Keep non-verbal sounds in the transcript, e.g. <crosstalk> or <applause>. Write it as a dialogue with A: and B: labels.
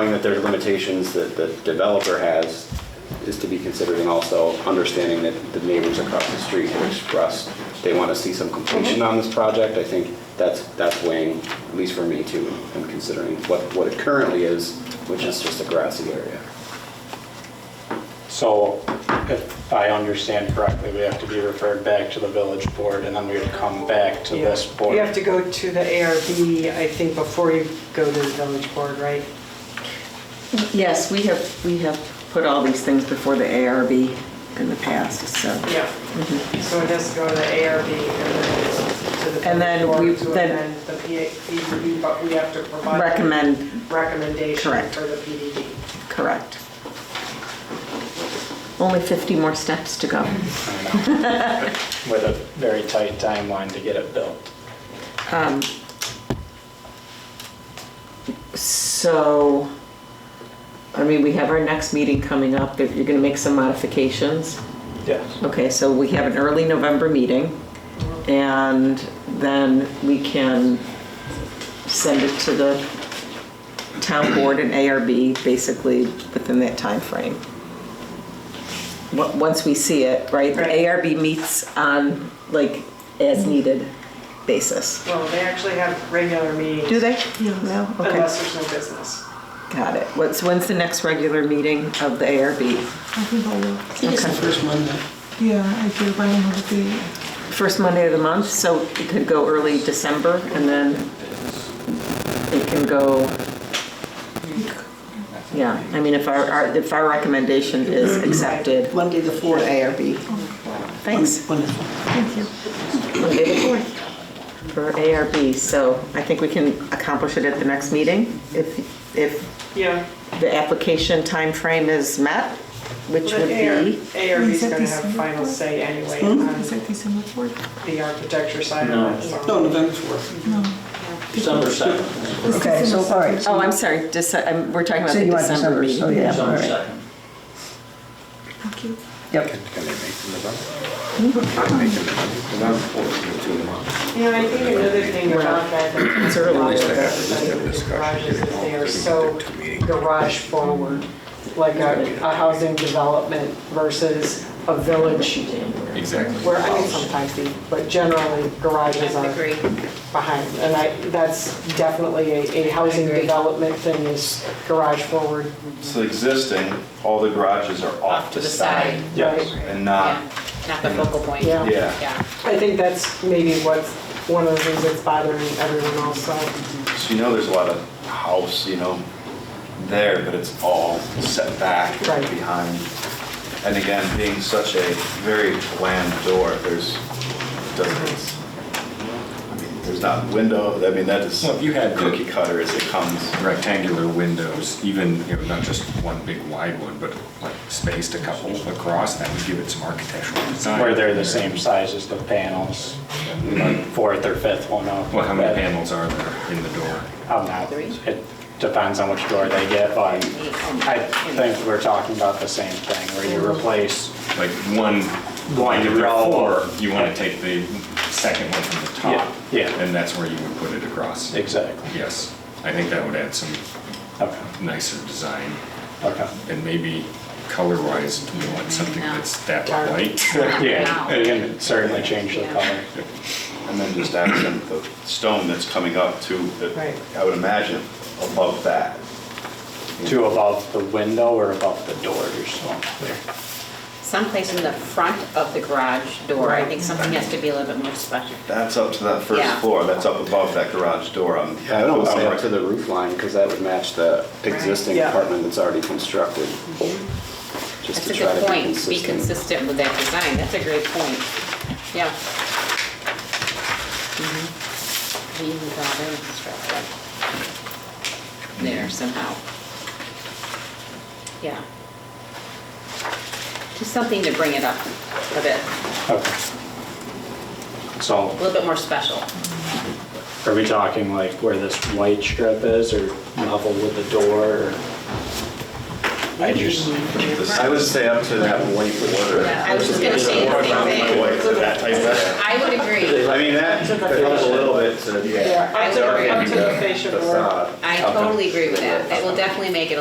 A: Knowing that there's limitations that the developer has is to be considered, and also understanding that the neighbors across the street have expressed they want to see some completion on this project. I think that's, that's weighing, at least for me too, and considering what, what it currently is, which is just a grassy area.
B: So if I understand correctly, we have to be referred back to the village board and then we would come back to
C: Yeah.
B: this board.
C: You have to go to the ARB, I think, before you go to the village board, right?
D: Yes, we have, we have put all these things before the ARB in the past, so.
C: Yeah. Mm-hmm. So it has to go to the ARB and then it's to the.
D: And then
C: village
D: we-
C: board to
D: then-
C: amend The PDD, but we have to provide.
D: Recommend,
C: Recommendation
D: Correct.
C: for the PDD.
D: correct. Only 50 more steps to go.
B: I know. With a very tight timeline to get it built.
D: Um, So, I mean, we have our next meeting coming up, if you're gonna make some modifications.
B: Yes.
D: Okay, so we have an early November meeting, and then we can send it to the town board and ARB, basically, within that timeframe. Wa- Once we see it, right, the
C: Right.
D: ARB meets on, like, as-needed basis.
C: Well, they actually have regular meetings.
D: Do they? No? Okay,
C: Unless there's no business.
D: got it. What's, when's the next regular meeting of the ARB?
E: I think I will.
F: It is the first Monday.
E: Yeah, I do, but I don't know the date.
D: First Monday of the month, so it could go early December, and then it can go, yeah, I mean, if our- our, if our recommendation is accepted.
F: Monday, the 4th. ARB.
D: Thanks.
F: Wonderful.
D: Monday the 4th for ARB, so I think we can accomplish it at the next meeting if, if
C: Yeah.
D: the application time frame is met, which would be,
C: ARB's
E: Is that
C: gonna have
E: December
C: final
E: fourth?
C: say anyway
D: Hmm?
G: Hmm?
C: on
E: Is that December 4th?
C: the architecture side of it. so-
F: No, November 4th.
E: No.
H: December
B: <laughs>
H: 2nd.
G: Okay, so, all right.
D: oh,
G: So
D: I'm sorry, Dece- I'm- we're talking about
G: so
D: the
G: you want
D: December
G: December, so Oh,
D: meeting.
G: yeah, all
H: December
G: right.
H: 2nd.
E: Thank you.
G: Yep,
C: Yeah, I think another thing about that, that's a lot of the garages is they are so garage forward, like a, a housing development versus a village. Exactly. Where, I mean, sometimes the, but generally garages are behind. And I, that's definitely a, a housing development thing is garage forward.
I: So existing, all the garages are off to the side
B: Yes.
C: right?
I: and not,
J: Not the focal point.
C: Yeah.
I: yeah.
C: I think that's maybe what's, one of the things that's bothering everyone also.
I: So you know there's a lot of house, you know, there, but it's all set back
C: Right.
I: and behind. And again, being such a very bland door, there's, doesn't, I mean, there's not window, I mean, that is
K: Well, if you had the-
I: cookie cutter as it comes.
K: rectangular windows, even, you know, not just one big wide one, but like spaced a couple across, that would give it some architectural design.
B: Where they're the same size as the panels, like fourth or fifth one up.
K: Well, how many panels are there in the door?
B: I'm not, it depends on which door they get, but I think we're talking about the same thing, where you replace
K: Like one,
B: One
K: like if there
B: row.
K: are four, you want to take the second one from the top.
B: Yeah, yeah.
K: And that's where you would put it across.
B: exactly.
K: Yes, I think that would add some
B: Okay,
K: nicer design
B: okay.
K: and maybe color-wise, you want something that's that light.
B: Yeah, it can certainly change the color.
I: And then just accent the stone that's coming up to,
C: Right.
I: I would imagine, above that.
B: Two above the window or above the door, you're still clear.
J: Someplace in the front of the garage door, I think something has to be a little bit more special.
I: That's up to that first
J: Yeah.
I: floor, that's up above that garage door um, on.
A: Yeah, I would almost say
I: on
A: up to the roof line, because that would match the existing
C: Yeah.
A: apartment that's already constructed. Just
J: That's
A: to
J: a
A: try
J: good
A: to be
J: point, be
A: consistent.
J: consistent with that design, that's a great point. Yeah. Mhm. He even thought they were constructed there somehow. Yeah. Just something to bring it up a bit,
B: Okay. So
J: a little bit more special.
B: are we talking like where this white strip is or level with the door? or- I just,
I: I would say up to that white border.
J: Yeah, I was just gonna say the same thing.
I: White to that type of-
J: I would agree.
I: I mean, that could help a little bit to.
C: Yeah,
J: I
C: up to,
J: would agree.
C: up to the fascia board.
I: Facade.
J: I
D: I
L: Okay.
D: totally agree with that. That will definitely make it a